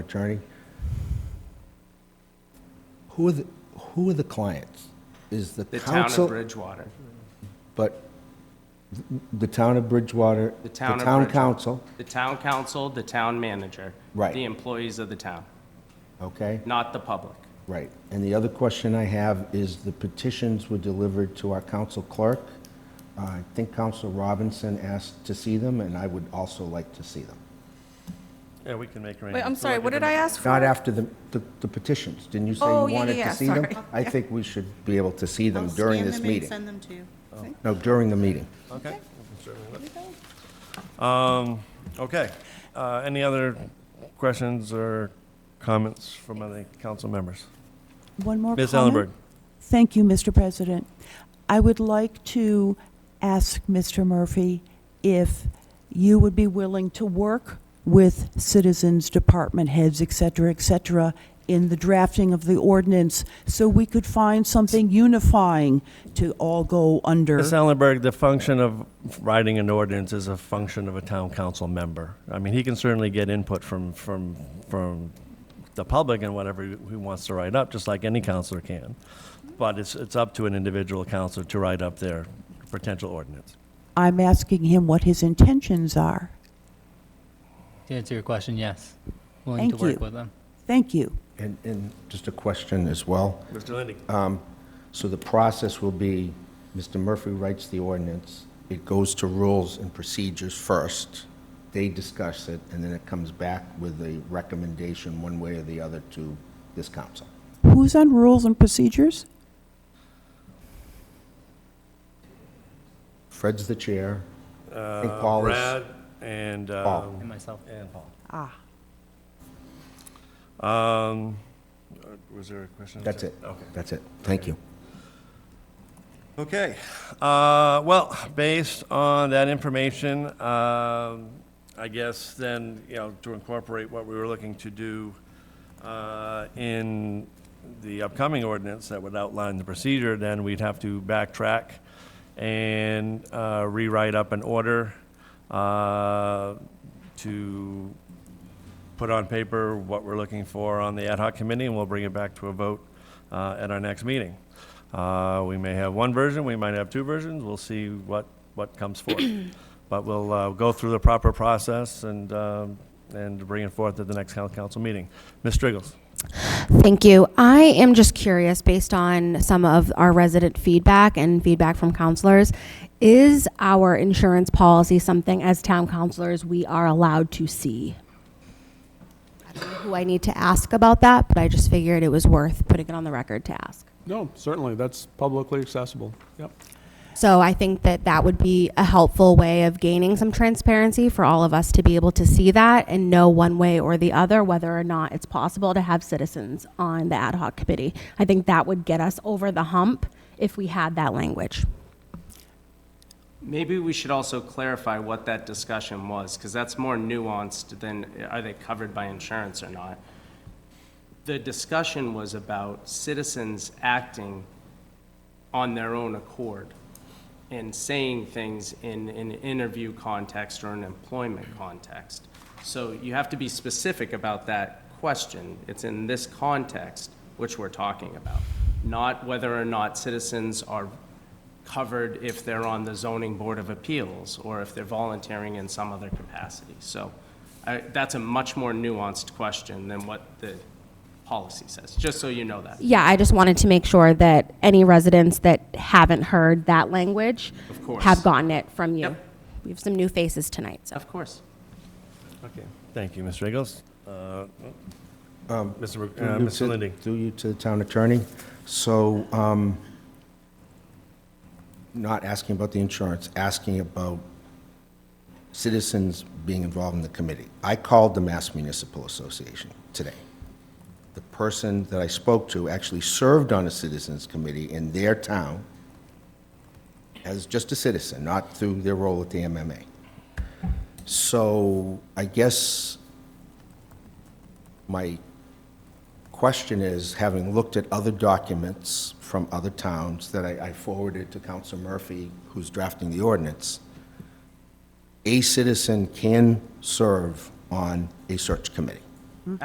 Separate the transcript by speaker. Speaker 1: attorney, who are the, who are the clients? Is the
Speaker 2: The town of
Speaker 1: council,
Speaker 2: Bridgewater.
Speaker 1: but th- the town of Bridgewater,
Speaker 2: The town of Bridgewater.
Speaker 1: council,
Speaker 2: The town council, the town manager.
Speaker 1: Right.
Speaker 2: The employees of the town,
Speaker 1: okay?
Speaker 2: not the public.
Speaker 1: Right. And the other question I have is the petitions were delivered to our council clerk. Uh, I think Council Robinson asked to see them, and I would also like to see them.
Speaker 3: Yeah, we can make arrangements.
Speaker 4: Wait, I'm
Speaker 3: We'll
Speaker 4: sorry,
Speaker 3: give
Speaker 4: what did
Speaker 3: them-
Speaker 4: I ask for?
Speaker 1: Not after the, the- the petitions. Didn't you say
Speaker 4: Oh,
Speaker 1: you
Speaker 4: yeah,
Speaker 1: wanted
Speaker 4: yeah,
Speaker 1: to
Speaker 4: yeah,
Speaker 1: see them?
Speaker 4: sorry.
Speaker 1: I think we should be able to see them
Speaker 5: I'll
Speaker 1: during
Speaker 5: scan
Speaker 1: this
Speaker 5: them and
Speaker 1: meeting.
Speaker 5: Send them to you.
Speaker 1: No, during the meeting.
Speaker 3: Okay. we can certainly look. Um, okay. Uh, any other questions or comments from other council members?
Speaker 6: One more
Speaker 3: Ms.
Speaker 6: comment?
Speaker 3: Ellenberg.
Speaker 6: Thank you, Mr. President. I would like to ask Mr. Murphy if you would be willing to work with citizens, department heads, et cetera, et cetera, in the drafting of the ordinance, so we could find something unifying to all go under.
Speaker 3: Ms. Ellenberg, the function of writing an ordinance is a function of a town council member. I mean, he can certainly get input from, from, from the public and whatever he wants to write up, just like any counselor can. But it's, it's up to an individual counselor to write up their potential ordinance.
Speaker 6: I'm asking him what his intentions are.
Speaker 7: To answer your question, yes. Willing to
Speaker 6: Thank
Speaker 7: work
Speaker 6: you.
Speaker 7: with them.
Speaker 6: Thank you.
Speaker 1: And, and just a question as well.
Speaker 3: Mr. Lindy.
Speaker 1: So the process will be, Mr. Murphy writes the ordinance, it goes to rules and procedures first, they discuss it, and then it comes back with a recommendation, one way or the other, to this council.
Speaker 6: Who's on rules and procedures?
Speaker 1: Fred's the chair. I think Paul is-
Speaker 3: Uh, Brad and,
Speaker 1: Paul.
Speaker 3: um,
Speaker 7: And myself.
Speaker 3: and Paul.
Speaker 6: Ah,
Speaker 3: Um, uh, was there a question?
Speaker 1: That's it.
Speaker 3: Okay.
Speaker 1: That's it. Thank you.
Speaker 3: Okay, uh, well, based on that information, um, I guess then, you know, to incorporate what we were looking to do uh, in the upcoming ordinance that would outline the procedure, then we'd have to backtrack and uh, rewrite up an order uh, to put on paper what we're looking for on the ad hoc committee, and we'll bring it back to a vote uh, at our next meeting. Uh, We may have one version, we might have two versions, we'll see what, what comes forth. But we'll uh, go through the proper process and, um, and bring it forth at the next coun- council meeting. Ms. Striggles?
Speaker 8: Thank you. I am just curious, based on some of our resident feedback and feedback from counselors, is our insurance policy something as town counselors we are allowed to see? I don't know who I need to ask about that, but I just figured it was worth putting it on the record to ask.
Speaker 9: No, certainly, that's publicly accessible, yep.
Speaker 8: So I think that that would be a helpful way of gaining some transparency for all of us to be able to see that and know one way or the other whether or not it's possible to have citizens on the ad hoc committee. I think that would get us over the hump if we had that language.
Speaker 2: Maybe we should also clarify what that discussion was, because that's more nuanced than are they covered by insurance or not. The discussion was about citizens acting on their own accord and saying things in an interview context or an employment context. So you have to be specific about that question. It's in this context which we're talking about, not whether or not citizens are covered if they're on the zoning board of appeals or if they're volunteering in some other capacity. So I- that's a much more nuanced question than what the policy says, just so you know that.
Speaker 8: Yeah, I just wanted to make sure that any residents that haven't heard that language
Speaker 2: Of course.
Speaker 8: have gotten it from you.
Speaker 2: Yep.
Speaker 8: We have some new faces tonight, so.
Speaker 2: Of course.
Speaker 3: Okay. Thank you, Ms. Striggles. Uh, Mr. Mc-
Speaker 1: Through
Speaker 3: uh,
Speaker 1: you
Speaker 3: Mr.
Speaker 1: to-
Speaker 3: Lindy?
Speaker 1: Through you to the town attorney. So, um, not asking about the insurance, asking about citizens being involved in the committee. I called the Mass Municipal Association today. The person that I spoke to actually served on a citizens committee in their town as just a citizen, not through their role at the MMA. So I guess my question is, having looked at other documents from other towns that I I forwarded to Council Murphy, who's drafting the ordinance, a citizen can serve on a search committee.